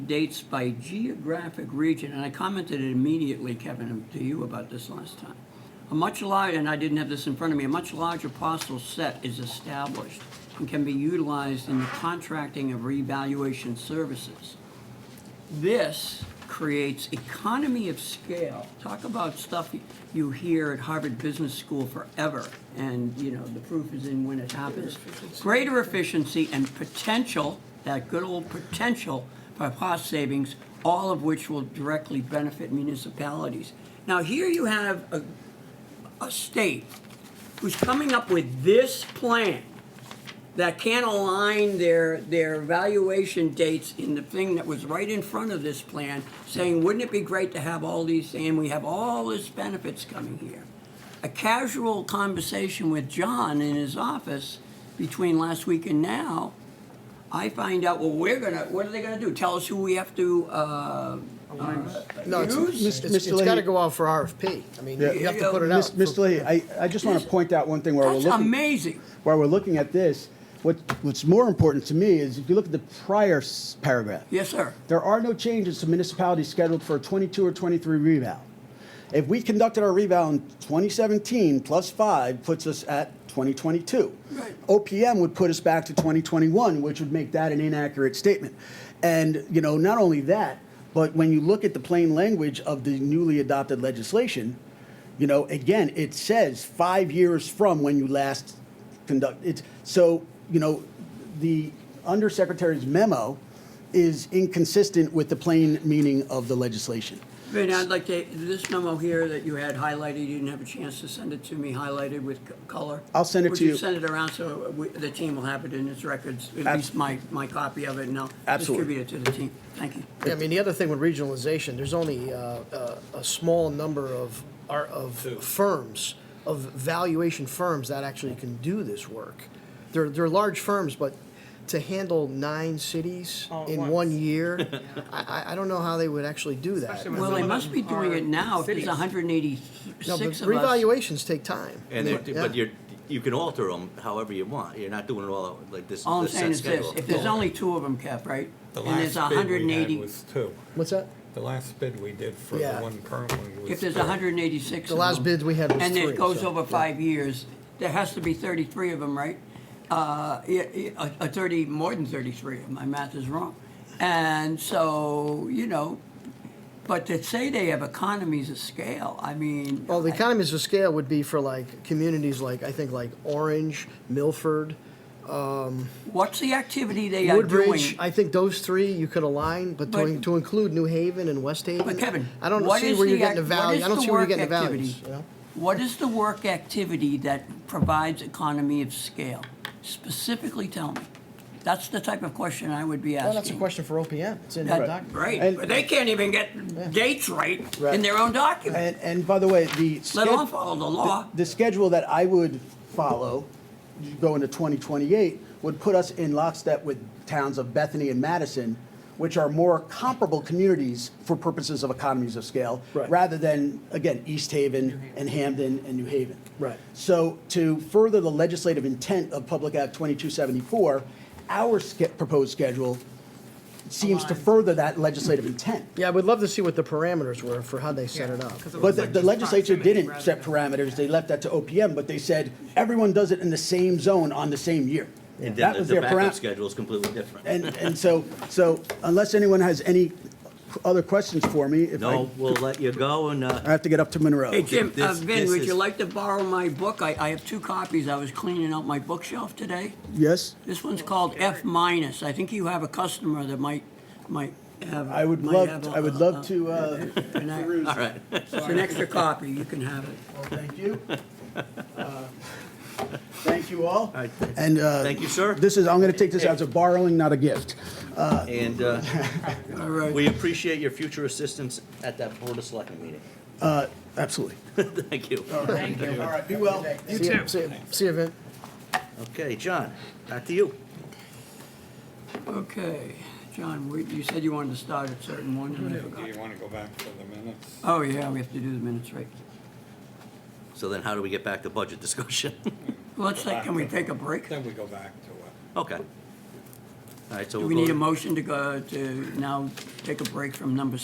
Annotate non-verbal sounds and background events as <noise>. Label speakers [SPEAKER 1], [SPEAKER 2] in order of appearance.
[SPEAKER 1] dates by geographic region, and I commented immediately, Kevin, to you about this last time. A much larger, and I didn't have this in front of me, a much larger parcel set is established and can be utilized in the contracting of revaluation services. This creates economy of scale. Talk about stuff you hear at Harvard Business School forever, and, you know, the proof is in when it happens. Greater efficiency and potential, that good old potential for cost savings, all of which will directly benefit municipalities. Now, here you have a, a state who's coming up with this plan that can't align their, their valuation dates in the thing that was right in front of this plan, saying, wouldn't it be great to have all these, and we have all these benefits coming here? A casual conversation with John in his office between last week and now, I find out, well, we're gonna, what are they gonna do? Tell us who we have to, uh,
[SPEAKER 2] No, it's,
[SPEAKER 1] Use-
[SPEAKER 2] it's-
[SPEAKER 3] Mr.
[SPEAKER 2] it's gotta go out for RFP. I mean, you you have to put it out.
[SPEAKER 3] Mis- Mr. Leahy, I, I just want to point out one thing while we're
[SPEAKER 1] that's
[SPEAKER 3] looking,
[SPEAKER 1] amazing.
[SPEAKER 3] while we're looking at this. What, what's more important to me is if you look at the prior s- paragraph,
[SPEAKER 1] Yes, sir.
[SPEAKER 3] there are no changes to municipalities scheduled for a 22 or 23 reval. If we conducted our reval in 2017 plus five puts us at 2022.
[SPEAKER 1] Right.
[SPEAKER 3] OPM would put us back to 2021, which would make that an inaccurate statement. And, you know, not only that, but when you look at the plain language of the newly adopted legislation, you know, again, it says five years from when you last conduct, it's, so, you know, the undersecretary's memo is inconsistent with the plain meaning of the legislation.
[SPEAKER 1] Vin, I'd like to, this memo here that you had highlighted, you didn't have a chance to send it to me, highlighted with c- color.
[SPEAKER 3] I'll send it to
[SPEAKER 1] Would you
[SPEAKER 3] you.
[SPEAKER 1] send it around so we- the team will have it in its records, at
[SPEAKER 3] Abs-
[SPEAKER 1] least my, my copy of it, and I'll
[SPEAKER 3] Absolutely.
[SPEAKER 1] distribute it to the team. Thank you.
[SPEAKER 2] Yeah, I mean, the other thing with regionalization, there's only uh, uh, a small number of, are- of firms, of valuation firms that actually can do this work. They're, they're large firms, but to handle nine cities
[SPEAKER 4] All at
[SPEAKER 2] in
[SPEAKER 4] once. <laughs>
[SPEAKER 2] one year, I, I- I don't know how they would actually do that.
[SPEAKER 4] Especially when
[SPEAKER 1] Well,
[SPEAKER 4] some
[SPEAKER 1] they
[SPEAKER 4] of
[SPEAKER 1] must be
[SPEAKER 4] them
[SPEAKER 1] doing
[SPEAKER 4] are
[SPEAKER 1] it now, if there's
[SPEAKER 4] cities.
[SPEAKER 2] No,
[SPEAKER 1] 186
[SPEAKER 2] but
[SPEAKER 1] of us.
[SPEAKER 2] revaluations take time.
[SPEAKER 5] And
[SPEAKER 2] I
[SPEAKER 5] they,
[SPEAKER 2] mean, yeah.
[SPEAKER 5] but you're, you can alter them however you want. You're not doing it all like this,
[SPEAKER 1] All I'm
[SPEAKER 5] this
[SPEAKER 1] saying
[SPEAKER 5] set
[SPEAKER 1] is this,
[SPEAKER 5] schedule.
[SPEAKER 1] if there's only two of them, Kev, right?
[SPEAKER 6] The
[SPEAKER 1] And there's
[SPEAKER 6] last bid we had
[SPEAKER 1] 180
[SPEAKER 6] was two.
[SPEAKER 2] What's that?
[SPEAKER 6] The last bid we did for the
[SPEAKER 2] Yeah.
[SPEAKER 6] one Perwin was
[SPEAKER 1] If there's
[SPEAKER 6] two.
[SPEAKER 1] 186
[SPEAKER 2] The
[SPEAKER 1] of
[SPEAKER 2] last
[SPEAKER 1] them,
[SPEAKER 2] bid we had was
[SPEAKER 1] And
[SPEAKER 2] three,
[SPEAKER 1] it goes
[SPEAKER 2] so,
[SPEAKER 1] over
[SPEAKER 2] yeah.
[SPEAKER 1] five years, there has to be 33 of them, right? Uh, yeah, yeah, A a 30, more than 33, if my math is wrong. And so, you know, but to say they have economies of scale, I mean.
[SPEAKER 2] Well, the
[SPEAKER 1] I-
[SPEAKER 2] economies of scale would be for like communities like, I think like Orange, Milford,
[SPEAKER 1] What's the activity they are
[SPEAKER 2] Woodbridge.
[SPEAKER 1] doing?
[SPEAKER 2] I think those three you could align, but to,
[SPEAKER 1] But-
[SPEAKER 2] to include New Haven and West Haven.
[SPEAKER 1] But Kevin,
[SPEAKER 2] I don't
[SPEAKER 1] what
[SPEAKER 2] see
[SPEAKER 1] is
[SPEAKER 2] where you're
[SPEAKER 1] the
[SPEAKER 2] getting the
[SPEAKER 1] ac-
[SPEAKER 2] value.
[SPEAKER 1] what
[SPEAKER 2] I don't
[SPEAKER 1] is
[SPEAKER 2] see
[SPEAKER 1] the
[SPEAKER 2] where
[SPEAKER 1] work
[SPEAKER 2] you're getting the values.
[SPEAKER 1] activity?
[SPEAKER 2] you know?
[SPEAKER 1] What is the work activity that provides economy of scale? Specifically tell me. That's the type of question I would be asking.
[SPEAKER 2] Well, that's a question for OPM. It's in the
[SPEAKER 1] That-
[SPEAKER 2] document.
[SPEAKER 1] Right,
[SPEAKER 3] And-
[SPEAKER 1] but they can't even get dates right in
[SPEAKER 3] Right.
[SPEAKER 1] their own document,
[SPEAKER 3] And, and by the way, the.
[SPEAKER 1] let
[SPEAKER 3] sched-
[SPEAKER 1] alone follow the law.
[SPEAKER 3] The schedule that I would follow, going to 2028, would put us in lockstep with towns of Bethany and Madison, which are more comparable communities for purposes of economies of scale,
[SPEAKER 2] Right.
[SPEAKER 3] rather than, again, East Haven and Hamden and New Haven.
[SPEAKER 2] Right.
[SPEAKER 3] So to further the legislative intent of Public Act 2274, our ske- proposed schedule seems to further that legislative intent.
[SPEAKER 2] Yeah, I would love to see what the parameters were for how they set it
[SPEAKER 4] Yeah,
[SPEAKER 2] up.
[SPEAKER 4] 'cause it
[SPEAKER 3] But
[SPEAKER 4] was
[SPEAKER 3] the-
[SPEAKER 4] like
[SPEAKER 3] the
[SPEAKER 4] just
[SPEAKER 3] legislature
[SPEAKER 4] proximity
[SPEAKER 3] didn't
[SPEAKER 4] rather
[SPEAKER 3] set
[SPEAKER 4] than-
[SPEAKER 3] parameters, they left that to OPM, but they said, everyone does it in the same zone on the same year.
[SPEAKER 5] And
[SPEAKER 3] That
[SPEAKER 5] then the-
[SPEAKER 3] was
[SPEAKER 5] the
[SPEAKER 3] their
[SPEAKER 5] backup
[SPEAKER 3] parameter.
[SPEAKER 5] schedule is completely different.
[SPEAKER 3] And, and so, so unless anyone has any other questions for me, if I,
[SPEAKER 5] No, we'll let you go and, uh,
[SPEAKER 3] I <laughs> have to get up to Monroe.
[SPEAKER 1] Hey, Jim, uh,
[SPEAKER 5] this-
[SPEAKER 1] Vin,
[SPEAKER 5] this
[SPEAKER 1] would
[SPEAKER 5] is-
[SPEAKER 1] you like to borrow my book? I, I have two copies, I was cleaning out my bookshelf today.
[SPEAKER 3] Yes,
[SPEAKER 1] This one's called F minus, I think you have a customer that might, might have.
[SPEAKER 3] I would
[SPEAKER 1] might
[SPEAKER 3] love,
[SPEAKER 1] have
[SPEAKER 3] to-
[SPEAKER 1] a-
[SPEAKER 3] I would
[SPEAKER 1] a-
[SPEAKER 3] love
[SPEAKER 1] a-
[SPEAKER 3] to, uh,
[SPEAKER 1] an act-
[SPEAKER 3] peruse.
[SPEAKER 5] all right.
[SPEAKER 1] It's an extra copy, you can have it.
[SPEAKER 3] Well, Thank you. Uh, Thank you all.
[SPEAKER 5] right.
[SPEAKER 3] And, uh.
[SPEAKER 5] Thank you, sir.
[SPEAKER 3] This is, I'm gonna take this as a borrowing, not a gift.
[SPEAKER 5] And, uh,
[SPEAKER 1] All right,
[SPEAKER 5] we appreciate your future assistance at that Board of Selectmen meeting. <laughs>
[SPEAKER 3] Uh, Absolutely.
[SPEAKER 5] Thank you.
[SPEAKER 3] All right, be well.
[SPEAKER 2] You too. See you, see you, Vin.
[SPEAKER 5] Okay, John, back to you.
[SPEAKER 1] okay. John, we- you said you wanted to start at certain one, and I
[SPEAKER 6] Do you
[SPEAKER 1] forgot.
[SPEAKER 6] want to go back to the minutes?
[SPEAKER 1] Oh, yeah, we have to do the minutes, right.
[SPEAKER 5] So then how do we get back to budget discussion? <laughs>
[SPEAKER 1] Let's, take- can we take a break?
[SPEAKER 6] Then we go back to it.
[SPEAKER 5] Okay. All right,
[SPEAKER 1] Do
[SPEAKER 5] so we'll
[SPEAKER 1] we
[SPEAKER 5] go
[SPEAKER 1] need
[SPEAKER 5] to-
[SPEAKER 1] a motion to go, to now take a break from number